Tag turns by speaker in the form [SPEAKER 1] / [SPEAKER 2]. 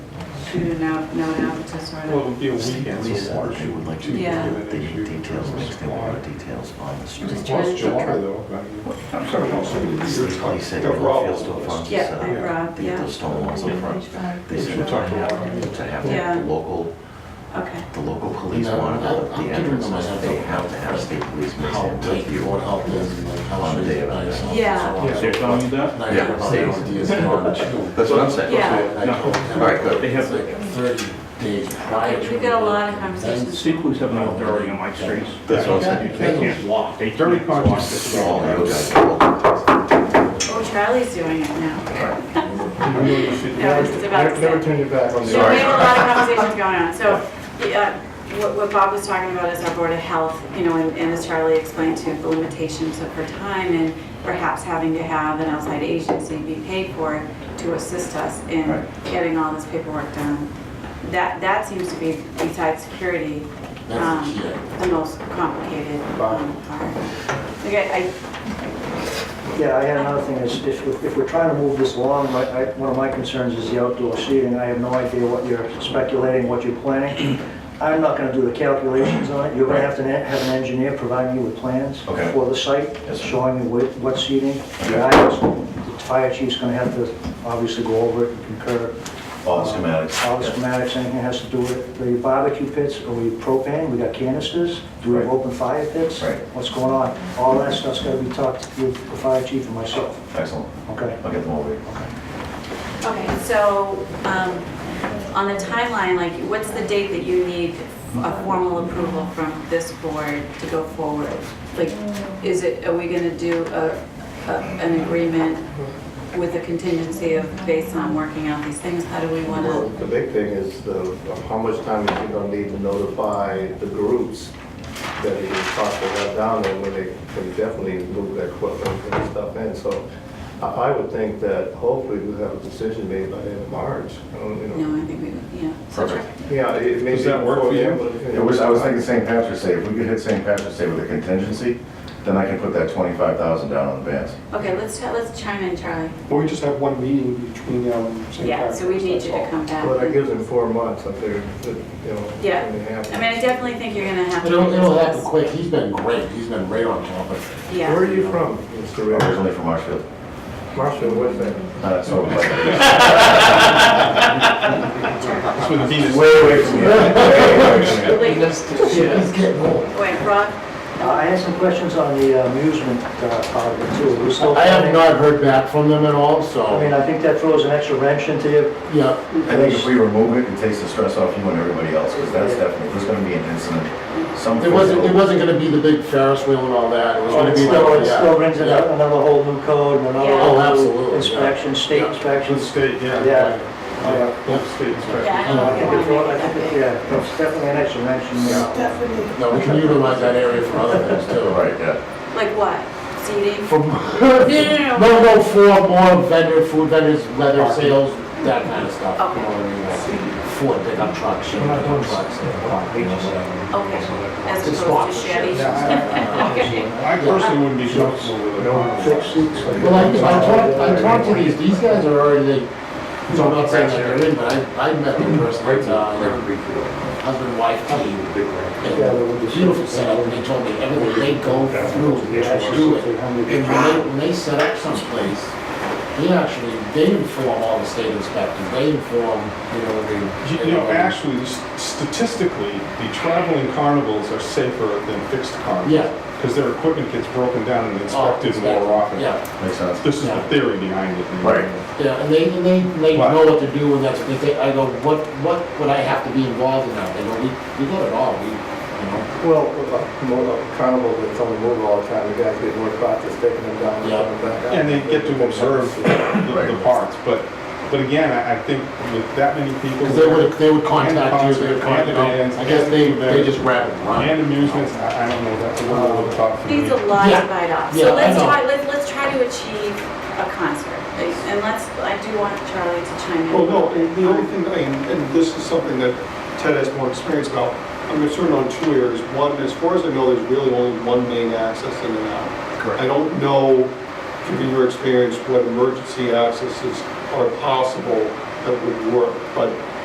[SPEAKER 1] due to now, now an impetus or
[SPEAKER 2] Well,
[SPEAKER 1] an.
[SPEAKER 2] it'll be a
[SPEAKER 3] State
[SPEAKER 2] weekend,
[SPEAKER 3] police
[SPEAKER 2] so
[SPEAKER 3] said
[SPEAKER 2] water
[SPEAKER 3] that uh, they would like
[SPEAKER 2] should
[SPEAKER 3] to
[SPEAKER 2] be
[SPEAKER 1] Yeah.
[SPEAKER 2] an
[SPEAKER 3] They need
[SPEAKER 2] issue in
[SPEAKER 3] details,
[SPEAKER 2] terms
[SPEAKER 3] like
[SPEAKER 2] of
[SPEAKER 3] they want
[SPEAKER 2] supply.
[SPEAKER 3] details on the
[SPEAKER 1] Just
[SPEAKER 3] street.
[SPEAKER 1] trying
[SPEAKER 2] Plus
[SPEAKER 1] to-
[SPEAKER 2] July though, I mean,
[SPEAKER 4] I'm sorry, no, so it's
[SPEAKER 3] State police
[SPEAKER 4] like
[SPEAKER 3] said
[SPEAKER 4] the
[SPEAKER 3] you want fields to
[SPEAKER 4] rubble.
[SPEAKER 3] fund,
[SPEAKER 1] Yeah,
[SPEAKER 2] Yeah.
[SPEAKER 3] so
[SPEAKER 1] Rob,
[SPEAKER 3] they get
[SPEAKER 1] yeah.
[SPEAKER 3] those stone walls up front. They
[SPEAKER 2] We should
[SPEAKER 3] said
[SPEAKER 2] talk to
[SPEAKER 3] to
[SPEAKER 2] Rob.
[SPEAKER 3] have, to have
[SPEAKER 1] Yeah.
[SPEAKER 3] the local,
[SPEAKER 1] Okay,
[SPEAKER 3] the local police
[SPEAKER 5] No,
[SPEAKER 3] wanted
[SPEAKER 5] I-
[SPEAKER 3] out at the
[SPEAKER 5] I'm giving
[SPEAKER 3] entrance,
[SPEAKER 5] them a heads
[SPEAKER 3] they
[SPEAKER 5] up.
[SPEAKER 3] have to have state police mix
[SPEAKER 5] How
[SPEAKER 3] in with
[SPEAKER 5] deep,
[SPEAKER 3] you.
[SPEAKER 5] what help is, and, like, how
[SPEAKER 3] On the
[SPEAKER 5] trees
[SPEAKER 3] day of it.
[SPEAKER 5] are nice and
[SPEAKER 1] Yeah.
[SPEAKER 5] so on.
[SPEAKER 2] Yeah.
[SPEAKER 6] They're telling you
[SPEAKER 5] And
[SPEAKER 6] that?
[SPEAKER 5] I heard
[SPEAKER 3] Yeah.
[SPEAKER 5] about the ideas in order too.
[SPEAKER 3] That's what I'm saying.
[SPEAKER 1] Yeah.
[SPEAKER 5] And I told
[SPEAKER 6] No.
[SPEAKER 5] him,
[SPEAKER 3] All right, good.
[SPEAKER 6] They have,
[SPEAKER 5] It's like thirty days prior
[SPEAKER 1] Okay,
[SPEAKER 5] to.
[SPEAKER 1] we've got a lot of
[SPEAKER 5] the
[SPEAKER 1] conversations.
[SPEAKER 6] state police have no authority on my streets.
[SPEAKER 3] That's what I'm
[SPEAKER 6] They
[SPEAKER 3] saying.
[SPEAKER 6] can't. They
[SPEAKER 2] Very
[SPEAKER 6] can't
[SPEAKER 2] conscious.
[SPEAKER 6] block this
[SPEAKER 3] All
[SPEAKER 6] road.
[SPEAKER 3] the other guys are local
[SPEAKER 1] oh, Charlie's doing it now.
[SPEAKER 2] you really should-
[SPEAKER 1] Yeah, I was just about to
[SPEAKER 2] Never never
[SPEAKER 1] say.
[SPEAKER 2] turn your back on the.
[SPEAKER 1] So we have a lot of conversations going on, so, uh, what, what Bob was talking about is our Board of Health, you know, and, and as Charlie explained to, the limitations of her time and perhaps having to have an outside agency be paid for to assist us in getting all this paperwork done. That, that seems to be, besides security,
[SPEAKER 5] That's
[SPEAKER 1] um,
[SPEAKER 5] the key.
[SPEAKER 1] the most complicated um, part. Okay, I,
[SPEAKER 7] Yeah, I had another thing, is if, if we're trying to move this along, my, I, one of my concerns is the outdoor seating, I have no idea what you're speculating, what you're planning. I'm not gonna do the calculations on it, you're gonna have to ne- have an engineer provide you with plans
[SPEAKER 3] Okay.
[SPEAKER 7] for the site,
[SPEAKER 3] Yes, sir.
[SPEAKER 7] showing you what, what seating, the aisles, the fire chief's gonna have to obviously go over it and concur.
[SPEAKER 3] All
[SPEAKER 7] Uh,
[SPEAKER 3] schematics,
[SPEAKER 7] All the
[SPEAKER 3] yeah.
[SPEAKER 7] schematics, anything that has to do with it. the barbecue pits, are we propane, we got canisters, do we have
[SPEAKER 3] Right.
[SPEAKER 7] open fire pits?
[SPEAKER 3] Right.
[SPEAKER 7] What's going on? All that stuff's gotta be talked with the fire chief and myself,
[SPEAKER 3] Excellent.
[SPEAKER 7] okay?
[SPEAKER 3] I'll get them over here.
[SPEAKER 1] Okay, so, um, on the timeline, like, what's the date that you need a formal approval from this board to go forward? Like, is it, are we gonna do a, a- an agreement with a contingency of based on working out these things? How do we
[SPEAKER 8] Well,
[SPEAKER 1] wanna?
[SPEAKER 8] the big thing is the, of how much time is it gonna need to notify the groups that it is possible to have down there when they can definitely move that equipment and stuff in. So I, I would think that hopefully we'll have a decision made by the end of March. I don't, you know.
[SPEAKER 1] No, I think we, yeah. So
[SPEAKER 3] Perfect.
[SPEAKER 8] Yeah, it may
[SPEAKER 2] Does that
[SPEAKER 8] be
[SPEAKER 2] work for you?
[SPEAKER 8] before then, but,
[SPEAKER 9] It was, I was thinking St. Patrick's Day, if we could hit St. Patrick's Day with a contingency, then I can put that twenty-five thousand down on the bands.
[SPEAKER 1] Okay, let's, chi- let's chime in, Charlie.
[SPEAKER 2] But we just have one meeting between now and St.
[SPEAKER 1] Yeah, so we
[SPEAKER 2] Patrick's,
[SPEAKER 1] need
[SPEAKER 2] that's
[SPEAKER 1] you
[SPEAKER 2] all.
[SPEAKER 1] to come back.
[SPEAKER 8] Well, that
[SPEAKER 1] I
[SPEAKER 8] gives them four months up there, that, you know.
[SPEAKER 1] Yeah.
[SPEAKER 8] when they have it.
[SPEAKER 1] mean, I definitely think you're gonna have to.
[SPEAKER 5] It'll, it'll
[SPEAKER 1] revisit
[SPEAKER 5] happen
[SPEAKER 1] this.
[SPEAKER 5] quick, he's been great, he's been right on top of
[SPEAKER 1] Yeah.
[SPEAKER 8] Where are you from, Mr. Ray?
[SPEAKER 9] Originally Oh, from Marshfield.
[SPEAKER 8] Marshall, what's that?
[SPEAKER 9] Uh, so, like,
[SPEAKER 2] That's where the Venus.
[SPEAKER 9] way away from here.
[SPEAKER 1] Wait,
[SPEAKER 5] it. He's getting old.
[SPEAKER 1] wait, Rob,
[SPEAKER 7] Uh, I had some questions on the amusement uh, part of it too. Are we still
[SPEAKER 5] I have
[SPEAKER 7] planning?
[SPEAKER 5] not heard back from them at all,
[SPEAKER 7] I mean,
[SPEAKER 5] so,
[SPEAKER 7] I think that throws an extra wrench into you.
[SPEAKER 5] yeah.
[SPEAKER 9] I think if we remove it, it takes the stress off you and everybody else, because that's definitely, there's gonna be an incident. Some.
[SPEAKER 5] It wasn't, it wasn't gonna be the big Ferris wheel and all that, it was
[SPEAKER 7] Well,
[SPEAKER 5] gonna
[SPEAKER 7] It
[SPEAKER 5] be.
[SPEAKER 7] still,
[SPEAKER 5] like-
[SPEAKER 7] it
[SPEAKER 5] yeah,
[SPEAKER 7] still brings in
[SPEAKER 5] yeah.
[SPEAKER 7] another whole new code and another
[SPEAKER 1] Yeah.
[SPEAKER 5] Oh,
[SPEAKER 7] whole
[SPEAKER 5] absolutely,
[SPEAKER 7] new
[SPEAKER 5] yeah.
[SPEAKER 7] inspection, state
[SPEAKER 5] Yeah.
[SPEAKER 2] To the
[SPEAKER 7] inspections.
[SPEAKER 2] state, yeah.
[SPEAKER 7] Yeah.
[SPEAKER 2] Yeah, to the state inspector.
[SPEAKER 1] yeah, I
[SPEAKER 7] I
[SPEAKER 1] don't
[SPEAKER 7] think
[SPEAKER 1] think
[SPEAKER 7] it's,
[SPEAKER 1] you wanna
[SPEAKER 7] I
[SPEAKER 1] make it
[SPEAKER 7] think,
[SPEAKER 1] that
[SPEAKER 7] it-
[SPEAKER 1] big.
[SPEAKER 7] yeah, it's definitely an extra wrench in there.
[SPEAKER 5] No, we can utilize that area for other things too.
[SPEAKER 9] Right, yeah.
[SPEAKER 1] Like what? Seating?
[SPEAKER 5] From,
[SPEAKER 1] no, no.
[SPEAKER 5] no, no, for more vendor, food vendors, leather sales, that kind of stuff.
[SPEAKER 1] Okay.
[SPEAKER 5] You know what I mean? Like Ford pickup trucks, Chevy pickup trucks, you know, whatever.
[SPEAKER 1] Okay, as
[SPEAKER 5] It's
[SPEAKER 1] opposed to Chevy?
[SPEAKER 5] sponsorship.
[SPEAKER 1] Okay.
[SPEAKER 2] I personally wouldn't be comfortable with it.
[SPEAKER 7] Fixed seats, like-
[SPEAKER 5] Well, I, I talked, I talked to these, these guys are already, like, so I'm not saying that they're in, but I, I met them personally, uh, husband, wife team. And Beautiful setup, and they told me everything, they go through, they actually do it. And when they, when they set up someplace, they actually, they inform all the state inspectors, they inform, you know,
[SPEAKER 2] You
[SPEAKER 5] the.
[SPEAKER 2] you know, actually, s- statistically, the traveling carnivals are safer than fixed carnivals.
[SPEAKER 5] Yeah.
[SPEAKER 2] Because their equipment gets broken down and
[SPEAKER 5] Oh,
[SPEAKER 2] inspected more often.
[SPEAKER 5] Yeah,
[SPEAKER 9] Makes sense.
[SPEAKER 2] This is the
[SPEAKER 5] Yeah.
[SPEAKER 2] theory behind it.
[SPEAKER 9] Right.
[SPEAKER 5] yeah, and they, and they, they
[SPEAKER 2] Right.
[SPEAKER 5] know what to do, and that's what they think, I go, what, what would I have to be involved in that? They go, we, we got it all, we, you know.
[SPEAKER 8] Well, a mo- a carnival that's on the move all the time, the guys get more practice taking them down and
[SPEAKER 5] Yeah.
[SPEAKER 8] coming back up.
[SPEAKER 2] And they get to observe the- the
[SPEAKER 9] Right.
[SPEAKER 2] parts, but, but again, I I think with that many people.
[SPEAKER 5] Because they would, they would contact you,
[SPEAKER 2] concert,
[SPEAKER 5] they would
[SPEAKER 2] and
[SPEAKER 5] contact,
[SPEAKER 2] bands,
[SPEAKER 5] I guess they,
[SPEAKER 2] and
[SPEAKER 5] they
[SPEAKER 2] events,
[SPEAKER 5] just wrap it around.
[SPEAKER 2] And amusements, I I don't know, that's a little over the top for me.
[SPEAKER 1] These are lot to
[SPEAKER 5] Yeah.
[SPEAKER 1] bite off.
[SPEAKER 5] Yeah,
[SPEAKER 1] So
[SPEAKER 5] I
[SPEAKER 1] let's
[SPEAKER 5] know.
[SPEAKER 1] try, let's, let's try to achieve a concert. And let's, I do want Charlie to chime in.
[SPEAKER 2] Well, no, and the only thing, and and this is something that Ted has more experience about, I'm concerned on two areas. One, as far as I know, there's really only one main access in and out. I don't know, given your experience, what emergency accesses are possible that would work, but